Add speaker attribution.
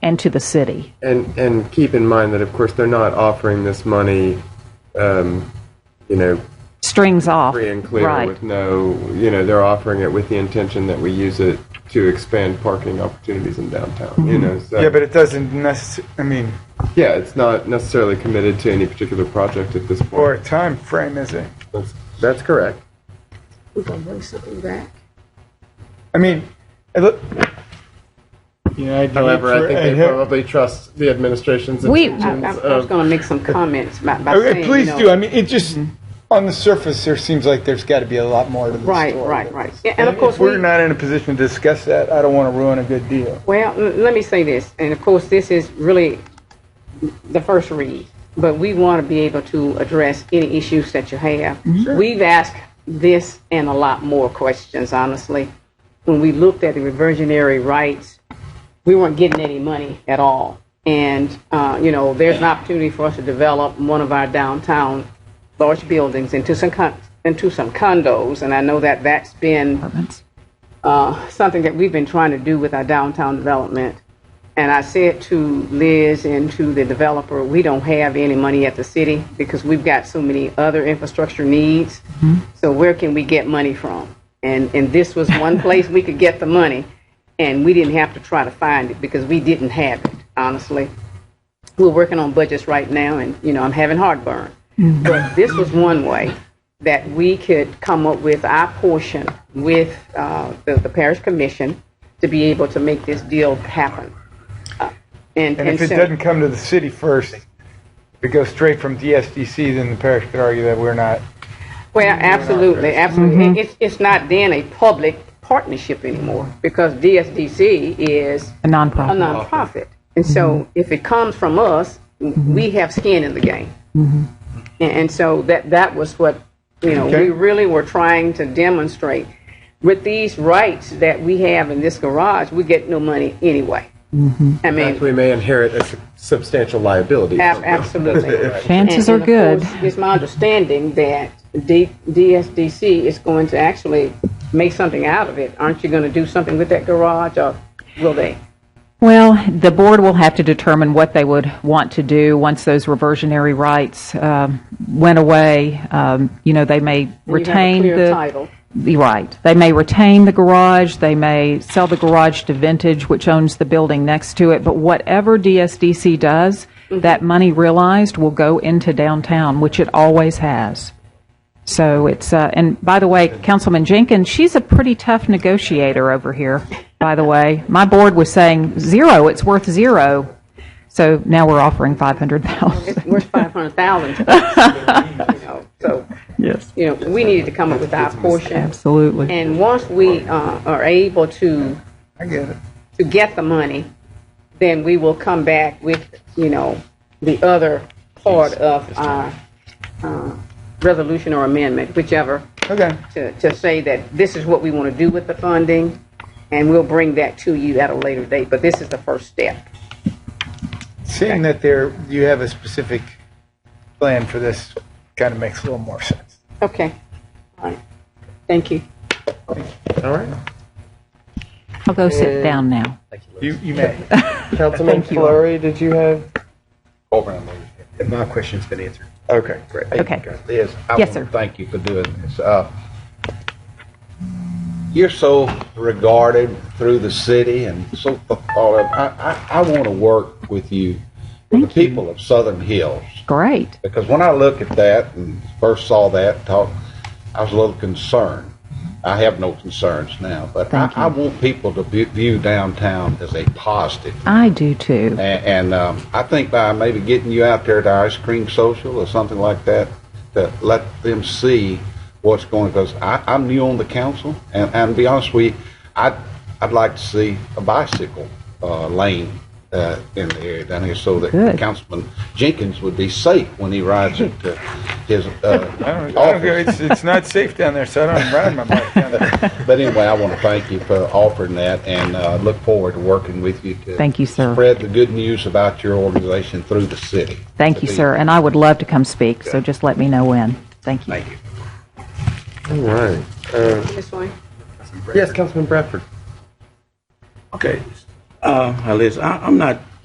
Speaker 1: and to the city.
Speaker 2: And and keep in mind that of course they're not offering this money, um, you know,
Speaker 1: Strings off.
Speaker 2: free and clear
Speaker 1: Right.
Speaker 2: with no, you know, they're offering it with the intention that we use it to expand parking opportunities in downtown. You know, so
Speaker 3: Mm-hmm. Yeah, but it doesn't necess, I mean,
Speaker 2: yeah, it's not necessarily committed to any particular project at this point.
Speaker 3: or time frame, is it?
Speaker 2: that's, that's correct.
Speaker 4: We're gonna bring something back.
Speaker 3: I mean, I look, you know, I do
Speaker 2: However,
Speaker 3: it for,
Speaker 2: I think
Speaker 3: I'd
Speaker 2: they
Speaker 3: have-
Speaker 2: probably trust the administration's
Speaker 1: We-
Speaker 4: I,
Speaker 2: intentions
Speaker 4: I, I was
Speaker 2: of
Speaker 4: gonna make some comments by, by saying,
Speaker 3: Okay,
Speaker 4: you
Speaker 3: Oh, please
Speaker 4: know-
Speaker 3: do. I mean, it just, on the surface, there seems like there's got to be a lot more to the
Speaker 4: Right,
Speaker 3: story.
Speaker 4: right, right. Yeah, and of course,
Speaker 3: If we're
Speaker 4: we,
Speaker 3: not in a position to discuss that, I don't want to ruin a good deal.
Speaker 4: well, l- let me say this, and of course, this is really the first read, but we want to be able to address any issues that you have. We've asked this and a lot more questions, honestly. When we looked at the reversionary rights, we weren't getting any money at all. And, uh, you know, there's an opportunity for us to develop one of our downtown large buildings into some con- into some condos, and I know that that's been
Speaker 1: Apartments.
Speaker 4: uh, something that we've been trying to do with our downtown development. And I said to Liz and to the developer, we don't have any money at the city because we've got so many other infrastructure needs. So where can we get money from? And and this was one place we could get the money, and we didn't have to try to find it because we didn't have it. Honestly, we're working on budgets right now, and you know I'm having heartburn. But this was one way that we could come up with our portion with uh, the, the parish commission to be able to make this deal happen. Uh, and
Speaker 3: And if it
Speaker 4: so-
Speaker 3: doesn't come to the city first, if it goes straight from DSDC, then the parish could argue that we're not.
Speaker 4: Well, absolutely, absolutely.
Speaker 1: Mm-hmm.
Speaker 4: It- It's, it's not then a public partnership anymore because DSDC is
Speaker 1: A
Speaker 4: a
Speaker 1: nonprofit. Mm-hmm.
Speaker 4: nonprofit. And so if it comes from us, we have skin in the game.
Speaker 1: Mm-hmm.
Speaker 4: And, and so that, that was what, you know,
Speaker 3: Okay.
Speaker 4: we really were trying to demonstrate. With these rights that we have in this garage, we get no money anyway.
Speaker 1: Mm-hmm.
Speaker 4: I
Speaker 2: In fact,
Speaker 4: mean,
Speaker 2: we may inherit a su- substantial liability.
Speaker 4: ab- absolutely.
Speaker 1: Chances
Speaker 4: And-
Speaker 1: are
Speaker 4: and
Speaker 1: good.
Speaker 4: of course, It's my understanding that D- DSDC is going to actually make something out of it. Aren't you going to do something with that garage, or will they?
Speaker 1: Well, the board will have to determine what they would want to do once those reversionary rights um, went away. Um, You know, they may
Speaker 4: you have a
Speaker 1: retain the...
Speaker 4: clear title.
Speaker 1: You're Right. They may retain the garage, they may sell the garage to Vintage, which owns the building next to it, but whatever DSDC does,
Speaker 4: Mm-hmm.
Speaker 1: that money realized will go into downtown, which it always has. So it's, uh, and by the way, Councilman Jenkins, she's a pretty tough negotiator over here, by the way. My board was saying zero, it's worth zero. So now we're offering 500,000.
Speaker 4: It's worth five hundred thousand. So,
Speaker 1: Yes.
Speaker 4: you know, we needed to come up with our portion.
Speaker 1: Absolutely.
Speaker 4: And once we uh, are able to,
Speaker 3: I get it.
Speaker 4: to get the money, then we will come back with, you know, the other part of our uh, resolution or amendment, whichever
Speaker 3: Okay.
Speaker 4: to, to say that this is what we want to do with the funding, and we'll bring that to you at a later date, but this is the first step.
Speaker 3: Seeing that there, you have a specific plan for this, kind of makes a little more sense.
Speaker 4: Okay. All right. Thank you.
Speaker 2: All right.
Speaker 1: I'll go sit down now.
Speaker 3: You, you may.
Speaker 2: Councilman
Speaker 1: you.
Speaker 2: Flurry, did you have?
Speaker 5: My question's been answered.
Speaker 3: Okay, great.
Speaker 1: Okay.
Speaker 5: Liz, I
Speaker 1: Yes,
Speaker 5: want
Speaker 1: sir.
Speaker 5: to thank you for doing this. Uh, You're so regarded through the city and so thought of. I, I, I want to work with you, with the people of Southern Hills.
Speaker 1: Great.
Speaker 5: Because when I look at that and first saw that talk, I was a little concerned. I have no concerns now, but I,
Speaker 1: Thank you.
Speaker 5: I want people to bu- view downtown as a positive.
Speaker 1: I do too.
Speaker 5: And, and um, I think by maybe getting you out there to ice cream social or something like that, to let them see what's going. Because I'm new on the council, and, and to be honest with you, I'd I'd like to see a bicycle uh, lane uh, in the area down here, so that
Speaker 1: Good.
Speaker 5: Councilman Jenkins would be safe when he rides it to his
Speaker 3: I
Speaker 5: uh,
Speaker 3: don't, I don't, go-
Speaker 5: office.
Speaker 3: it's, it's not safe down there, so I don't ride my bike down there.
Speaker 5: But anyway, I want to thank you for offering that, and uh, look forward to working with you to
Speaker 1: Thank you, sir.
Speaker 5: spread the good news about your organization through the city.
Speaker 1: Thank you, sir, and I would love to come speak, so just let me know when. Thank you.
Speaker 5: Thank you.
Speaker 2: All right.
Speaker 4: This way.
Speaker 2: Yes, Councilman Bradford.
Speaker 6: Okay, uh, Liz, I, I'm not